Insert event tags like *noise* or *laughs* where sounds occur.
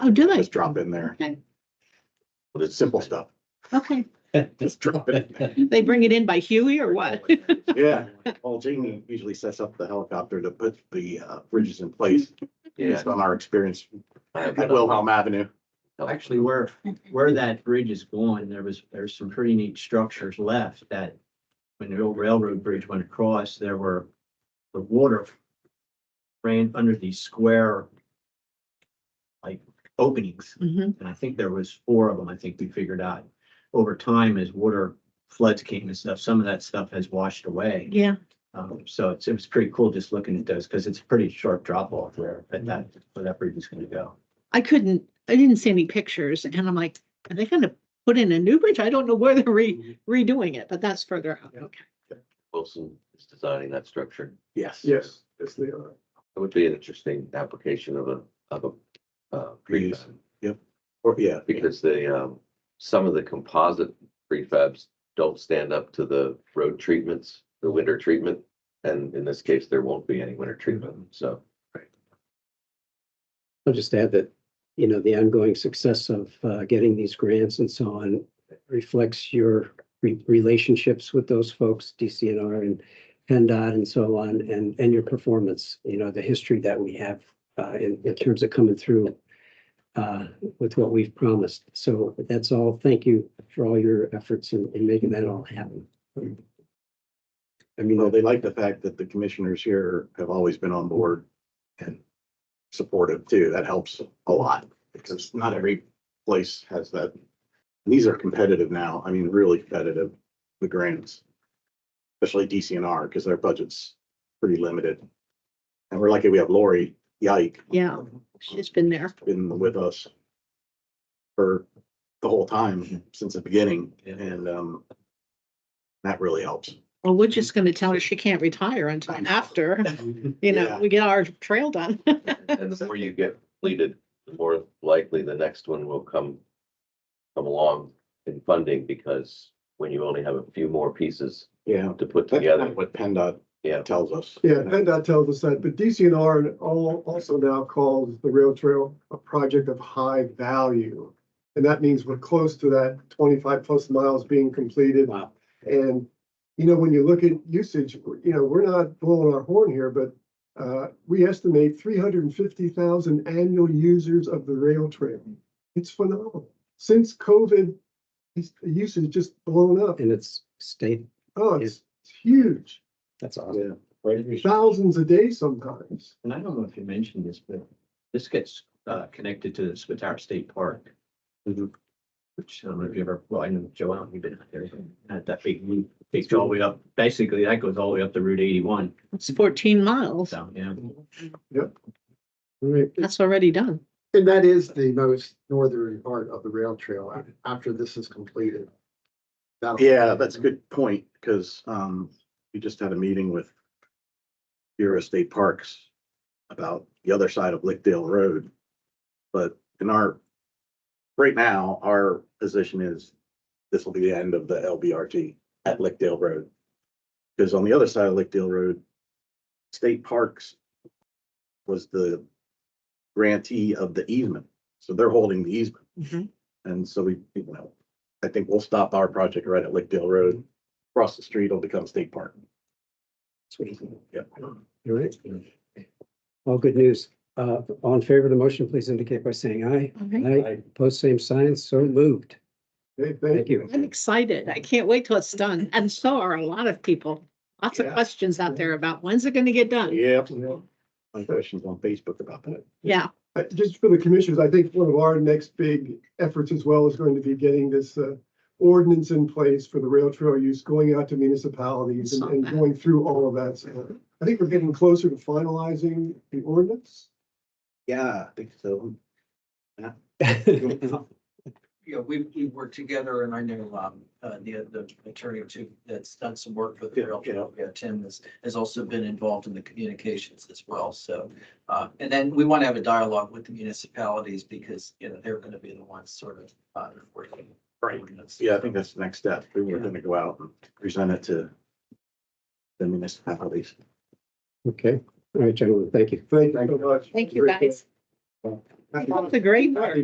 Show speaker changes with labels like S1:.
S1: Oh, do they?
S2: Just drop in there,
S1: Okay,
S2: but it's simple stuff.
S1: okay.
S2: Just drop it in
S3: *laughs*
S2: there.
S1: They bring it in by Huey or what?
S2: *laughs* Yeah, Paul Jamie usually sets up the helicopter to put the uh, bridges in place.
S4: Yeah.
S2: Based on our experience at
S4: Well,
S2: Wilhelm Avenue.
S4: actually, where, where that bridge is going, there was, there's some pretty neat structures left that when the old railroad bridge went across, there were, the water ran under these square like openings.
S1: Mhm.
S4: And I think there was four of them, I think we figured out. Over time, as water floods came and stuff, some of that stuff has washed away.
S1: Yeah,
S4: Um, so it's, it was pretty cool just looking at those, because it's a pretty sharp drop off there, but that, where that bridge is gonna go.
S1: I couldn't, I didn't see any pictures and I'm like, are they gonna put in a new bridge? I don't know where they're re- redoing it, but that's further out. Okay.
S5: Wilson is designing that structure.
S2: Yes.
S3: Yes, yes, they are.
S5: It would be an interesting application of a, of a, uh,
S2: Reuse.
S5: prefab.
S2: Or, yeah,
S5: Because the, um, some of the composite prefabs don't stand up to the road treatments, the winter treatment. And in this case, there won't be any winter treatment, so.
S6: I'll just add that, you know, the ongoing success of uh, getting these grants and so on reflects your re- relationships with those folks, DCNR and PennDOT and so on, and, and your performance, you know, the history that we have uh, in, in terms of coming through uh, with what we've promised. So that's all. Thank you for all your efforts in, in making that all happen. I mean,
S2: well, they like the fact that the commissioners here have always been on board and supportive too. That helps a lot because not every place has that. These are competitive now. I mean, really competitive, the grants. Especially DCNR because their budget's pretty limited. And we're lucky we have Lori Yike
S1: Yeah, she's been there.
S2: been with us for the whole time since the beginning
S4: Yeah.
S2: and um that really helps.
S1: Well, we're just gonna tell her she can't retire until after, you know,
S2: Yeah.
S1: we get our trail done. *laughs*
S5: And the more you get completed, the more likely the next one will come, come along in funding because when you only have a few more pieces
S2: Yeah.
S5: to put
S2: That's
S5: together,
S2: what PennDOT
S5: yeah.
S2: tells us.
S3: Yeah, PennDOT tells us that, but DCNR and all also now calls the rail trail a project of high value. And that means we're close to that twenty-five plus miles being completed.
S6: wow.
S3: And, you know, when you look at usage, you know, we're not blowing our horn here, but uh, we estimate three hundred and fifty thousand annual users of the rail trail. It's phenomenal. Since COVID, it's- the usage just blown up.
S6: And it's state,
S3: Oh, it's it's huge,
S6: that's awesome.
S2: Yeah.
S3: thousands a day sometimes.
S4: And I don't know if you mentioned this, but this gets uh connected to the Spitara State Park.
S2: Mhm.
S4: Which I don't know if you ever, well, I know Joe Allen, you've been out there, had that big loop, takes you all the way up, basically that goes all the way up to Route eighty-one,
S1: It's fourteen miles.
S4: so, yeah.
S3: *laughs* Right.
S1: That's already done.
S7: And that is the most northern part of the rail trail a- after this is completed. That'll-
S2: Yeah, that's a good point, because um, we just had a meeting with Bureau of State Parks about the other side of Lickdale Road. But in our, right now, our position is this will be the end of the LBRT at Lickdale Road. Because on the other side of Lickdale Road, State Parks was the grantee of the easement, so they're holding the easement.
S1: Mhm.
S2: And so we, you know, I think we'll stop our project right at Lickdale Road. Across the street will become state park. Yep.
S6: All right. All good news. Uh, all in favor of the motion, please indicate by saying aye.
S1: Okay.
S6: Aye. Post same sign, so moved.
S3: Okay,
S6: Thank you.
S1: I'm excited. I can't wait till it's done. And so are a lot of people. Lots of
S3: Yeah.
S1: questions out there about when's it gonna get done?
S2: Yep. My question's on Facebook about that.
S1: Yeah,
S3: Uh, Just for the commissioners, I think one of our next big efforts as well is going to be getting this uh, ordinance in place for the rail trail use, going out to municipalities and- and going through all of that. So I think we're getting closer to finalizing the ordinance.
S2: Yeah, I think so.
S8: Yeah, we've, we've worked together and I know, um, uh, the, the attorney too, that's done some work for the
S2: Yeah,
S8: rail
S2: yeah.
S8: trail. Yeah, Tim has, has also been involved in the communications as well. So, uh, and then we want to have a dialogue with the municipalities because, you know, they're going to be the ones sort of, uh, working.
S2: Right.
S8: on this.
S2: Yeah, I think that's the next step. We were gonna go out and present it to the municipalities.
S6: Okay. All right, gentlemen, thank you.
S3: Thank you so much.
S1: thank you guys. It's a great work.